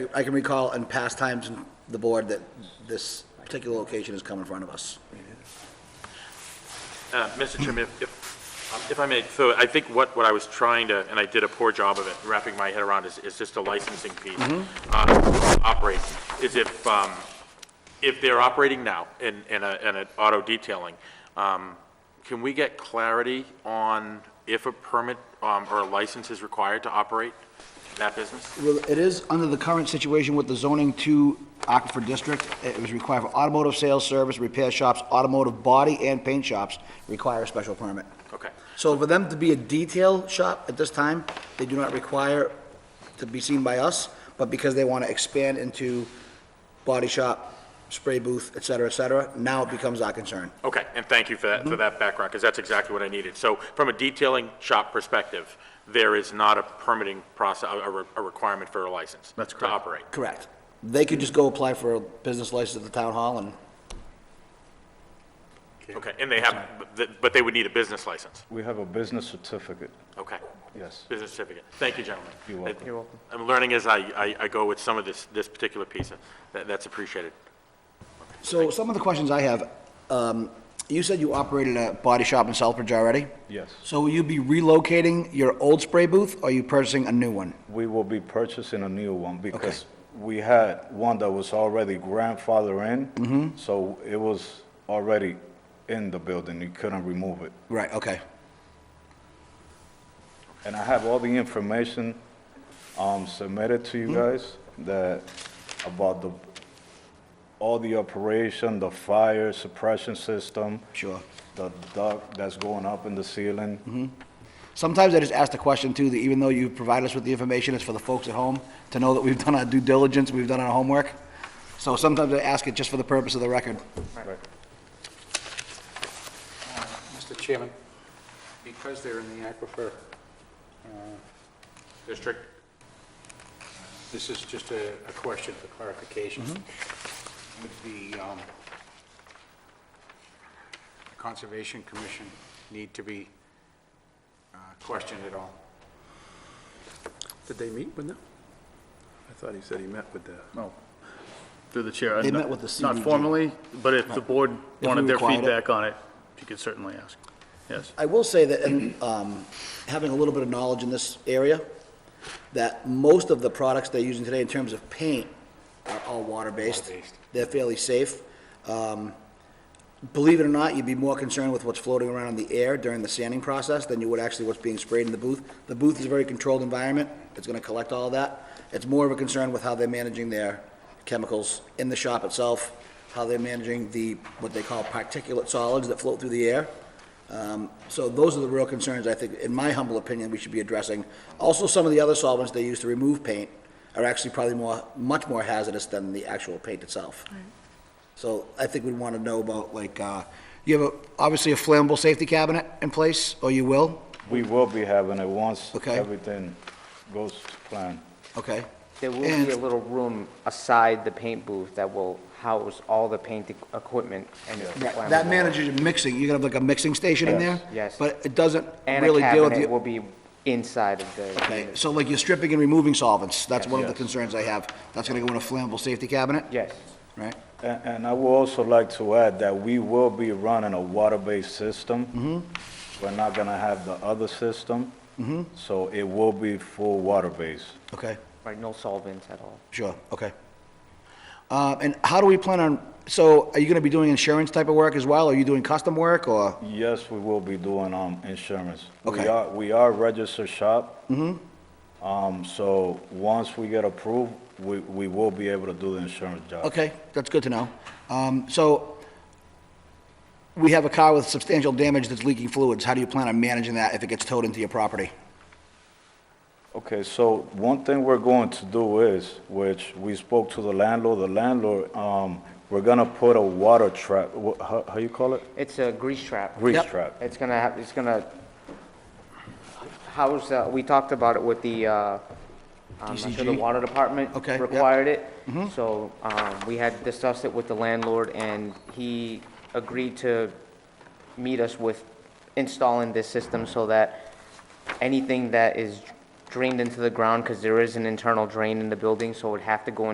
I can recall in past times in the board that this particular location has come in front of us. Uh, Mr. Chairman, if- if, if I may, so I think what, what I was trying to, and I did a poor job of it, wrapping my head around, is, is just a licensing piece. uh, Operate, is if, um, if they're operating now in, in a, in an auto detailing, um, can we get clarity on if a permit, um, or a license is required to operate that business? Well, it is under the current situation with the zoning to Aquifer District. It was required for automotive sales, service, repair shops, automotive body and paint shops require a special permit. Okay, So for them to be a detail shop at this time, they do not require to be seen by us, but because they want to expand into body shop, spray booth, et cetera, et cetera, now it becomes our concern. okay, and thank you for that, Mm-hmm. for that background, because that's exactly what I needed. So from a detailing shop perspective, there is not a permitting process, a, re- a requirement for a license? That's To correct. operate? Correct. They could just go apply for a business license at the town hall and Okay, and they have, but- but they would need a business license? We have a business certificate, Okay. yes. Business certificate. Thank you, gentlemen. You're welcome. You're welcome. I'm learning as I, I, I go with some of this, this particular piece. That, that's appreciated. So some of the questions I have, um, you said you operated a body shop in Southbridge already? Yes. So will you be relocating your old spray booth, or are you purchasing a new one? We will be purchasing a new one because we had one that was already grandfather in, so it was already in the building, you couldn't remove it. Right, okay. And I have all the information um, submitted to you guys that, about the, all the operation, the fire suppression system. Sure. The duct that's going up in the ceiling. Sometimes I just ask the question too, that even though you provide us with the information, it's for the folks at home to know that we've done our due diligence, we've done our homework. So sometimes I ask it just for the purpose of the record. Right. Mr. Chairman, because they're in the aquifer, uh, District? this is just a, a question for clarification. Mm-hmm. Would the, um, Conservation Commission need to be uh, questioned at all? Did they meet with them? I thought he said he met with the, No. Through the chair. They not- met with the Not CBG. formally, but if the board we wanted their required it. feedback on it, you could certainly ask. Yes. I will say that, and, um, having a little bit of knowledge in this area, that most of the products they're using today in terms of paint are all water-based. Water-based. They're fairly safe. Um, believe it or not, you'd be more concerned with what's floating around in the air during the sanding process than you would actually what's being sprayed in the booth. The booth is a very controlled environment. It's gonna collect all of that. It's more of a concern with how they're managing their chemicals in the shop itself, how they're managing the, what they call particulate solids that float through the air. So those are the real concerns, I think, in my humble opinion, we should be addressing. Also, some of the other solvents they use to remove paint are actually probably more, much more hazardous than the actual paint itself. So I think we'd want to know about, like, uh, you have, a- obviously, a flammable safety cabinet in place, or you will? We will be having it once Okay. everything goes to plan. Okay. There will And- be a little room aside the paint booth that will house all the paint e- equipment and. it's Right, flammable. That manages your mixing, you're gonna have like a mixing station in there? Yes. Yes. But it doesn't And a really deal with cabinet will you. be inside of the. Okay, unit. so like you're stripping and removing solvents, that's one of the Yes. concerns I have. That's gonna go in a flammable safety cabinet? Yes. Right? And, and I would also like to add that we will be running a water-based system. Mm-hmm. We're not gonna have the other system. So it will be full water-based. Okay. Right, no solvents at all. Sure, okay. Uh, And how do we plan on, so are you going to be doing insurance type of work as well? Are you doing custom work or? Yes, we will be doing, um, insurance. Okay. Mm-hmm. We are, we are a registered shop. Um, so once we get approved, we, we will be able to do the insurance job. Okay, that's good to know. Um, So we have a car with substantial damage that's leaking fluids. How do you plan on managing that if it gets towed into your property? Okay, so one thing we're going to do is, which we spoke to the landlord, the landlord, um, we're gonna put a water trap, wha- how, how you call it? It's a grease trap. Grease Yep. trap. It's gonna have, it's gonna house, uh, we talked about it with the, uh, I'm not sure the DCG? water department. Okay, yep. Mm-hmm. Required it. So, um, we had discussed it with the landlord and he agreed to meet us with installing this system so that anything that is drained into the ground because there is an internal drain in the building, so it would have to go in.